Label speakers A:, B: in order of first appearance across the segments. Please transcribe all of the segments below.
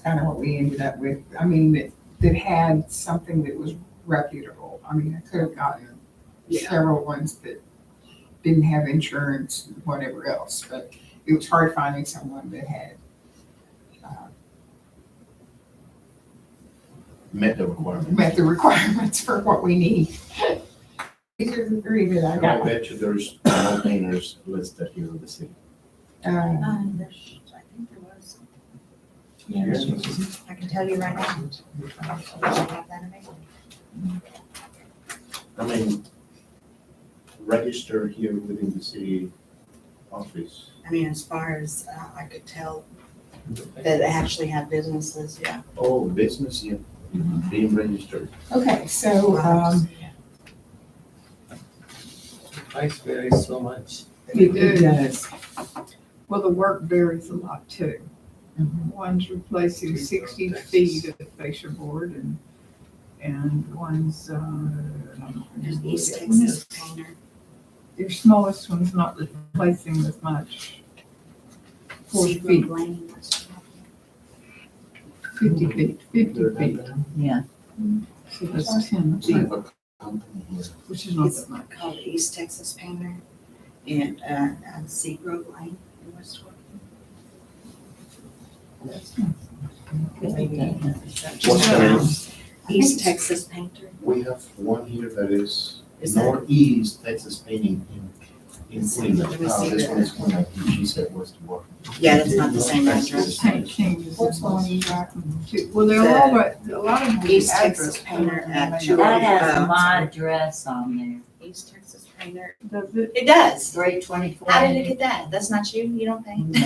A: kind of what we ended up with. I mean, that, that had something that was reputable. I mean, I could have gotten
B: Yeah.
A: several ones that didn't have insurance and whatever else, but it was hard finding someone that had. uh,
C: met the requirement.
A: Met the requirements for what we need. These are the three that I
C: And I
A: got.
C: bet you there's no painters listed here in the city.
A: Uh,
B: Um, there's, I think there was,
C: Yes.
B: I can tell you right now. I have that in my-
C: I mean, register here within the city office.
B: I mean, as far as uh, I could tell, that actually have businesses, yeah.
C: Oh, business, yeah, being registered.
A: Okay, so, um,
D: Price varies so much.
A: it it does.
E: Well, the work varies a lot too.
B: Mm-hmm.
A: Mhm.
E: One's replacing sixty feet of fascia board and, and one's, uh, I don't know.
B: There's East Texas Painter.
E: Your smallest one's not replacing as much. Four
B: Seafood
E: feet.
B: Lane, that's-
E: Fifty feet, fifty feet, so that's ten,
C: Do you have a company here?
E: which is not that much.
B: Called East Texas Painter and, uh, on Seagrove Lane in West Fork.
C: What's the name?
B: East Texas Painter.
C: We have one here that is
B: Is that-
C: northeast Texas painting in, in Cleveland.
B: Let me
C: Oh,
B: see
C: this
B: that.
C: one is Cleveland, she said was the one.
B: Yeah, that's not the same address.
E: Paint changes.
A: What's going on?
E: Well, they're all, right- a lot of them.
B: East Texas Painter at two oh
F: That
B: five.
F: has my address on
B: East Texas Painter.
E: Does it,
B: It does.
F: there, three twenty-four.
B: How did it get that? That's not you? You don't paint?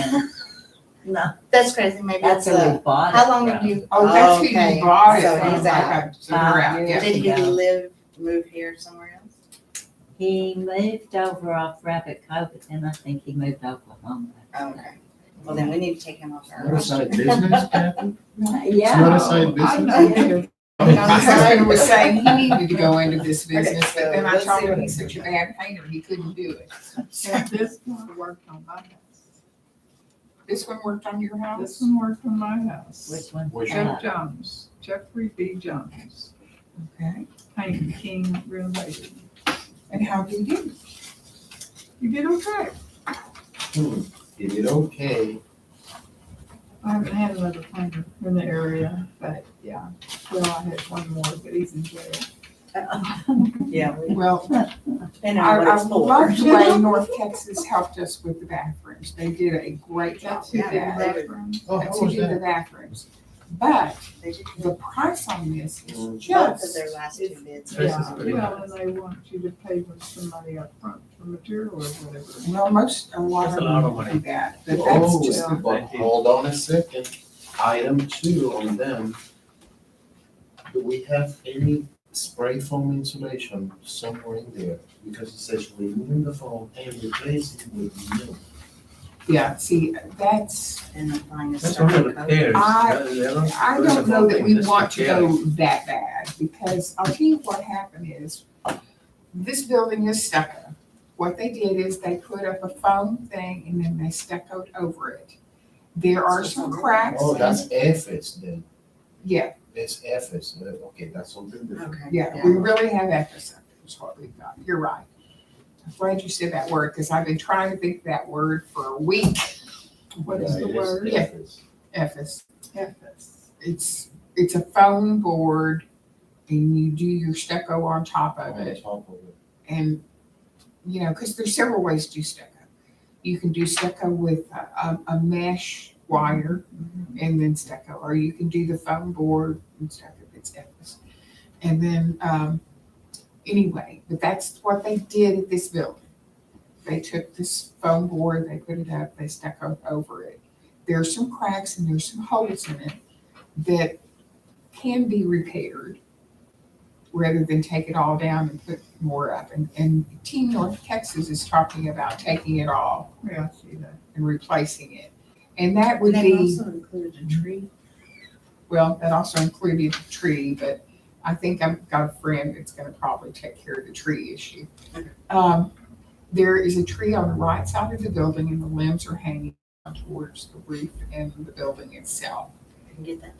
F: No,
B: That's crazy. Maybe
F: that's
B: that's
F: where
B: a,
F: we bought it
B: how long have
F: from.
B: you?
A: Oh, that's who
B: Okay,
A: you bought it
B: so
A: from,
B: he's
A: like,
B: out. Ah,
A: I- so they're out,
F: Five
A: yeah.
F: years.
B: Did he
F: Yeah.
B: live, move here somewhere else?
F: He moved over off Rabbit Cove, but then I think he moved to Oklahoma.
B: Oh, okay. Well, then we need to take him off our.
C: Not a side business, Kathy? It's
F: Yeah.
C: not a side
E: I
C: business?
E: know they're
A: My husband was saying he needed to go into this
B: Okay,
A: business, but then I
B: so
A: told him
B: let's
A: he's
B: see
A: such a bad painter, he couldn't do it.
E: So this one worked on my house.
A: This one worked on your
E: This
A: house?
E: one worked on my house.
F: Which one?
C: Which
E: Jeff Jones, Jeffrey B. Jones,
A: Okay.
E: Hank King related.
A: And how did you do?
E: You did okay.
C: Hmm, Is it okay?
E: I haven't had another painter in the area, but yeah. Well, I had one more, but he's in jail.
B: Yeah. we-
A: Well, I,
B: Depending on what
A: I
B: it's for.
A: loved the way North Texas helped us with the bathrooms. They did a great job
E: That's who
A: with
E: did
A: that.
E: that from.
C: Oh,
A: That's
C: how
A: who
C: was
A: did the
C: that?
A: bathrooms. But
B: They did
A: the price on this is
C: Mm.
B: Both of
A: just,
B: their last two bids.
C: This
E: Yeah,
C: is pretty
E: well, and they want you to pay with some money up front for material or whatever.
A: well, most, a lot
D: That's
A: of
D: a lot of
A: them
D: money.
A: do that, but that's
C: Oh,
A: just
E: yeah.
C: but hold on a second, item two on them. Do we have any spray foam insulation somewhere in there? Because it says removing the foam and replacing it with new. Oh,
A: Yeah, see, that's,
B: And applying a
D: That's only
B: certain code.
D: repairs.
A: I- I don't know that we
D: That's
A: want to
D: repairs.
A: go that bad, because I'll tell you what happened is, this building is stucco. What they did is they put up a foam thing and then they stuccoed over it. There are some cracks,
C: Oh, that's F's then,
A: yeah,
C: that's F's, Uh, okay, that's something different.
B: Okay.
A: yeah, we really have episode, is what we've got, you're right. I'm glad you said that word, because I've been trying to think of that word for a week,
E: What is
C: Yeah,
E: the
C: it is
E: word?
C: F's.
A: Ephes.
E: Ephes.
A: It's, it's a foam board and you do your stucco on top of it.
C: On top of it.
A: and you know because there's several ways to do stucco you can do stucco with a, a, a mesh wire and then stucco or you can do the foam board and stuff if it's effortless and then um, anyway but that's what they did at this building they took this foam board they put it up they stucco over it there are some cracks and there's some holes in it that can be repaired rather than take it all down and put more up. And, and Team North Texas is talking about taking it all
E: Yeah, I see that.
A: and replacing it. And that
B: Would
A: would
B: they
A: be,
B: also included a tree?
A: well, that also included the tree, but I think I've got a friend that's gonna probably take care of the tree issue.
B: Okay.
A: Um, there is a tree on the right side of the building and the limbs are hanging down towards the roof and the building itself.
B: can get that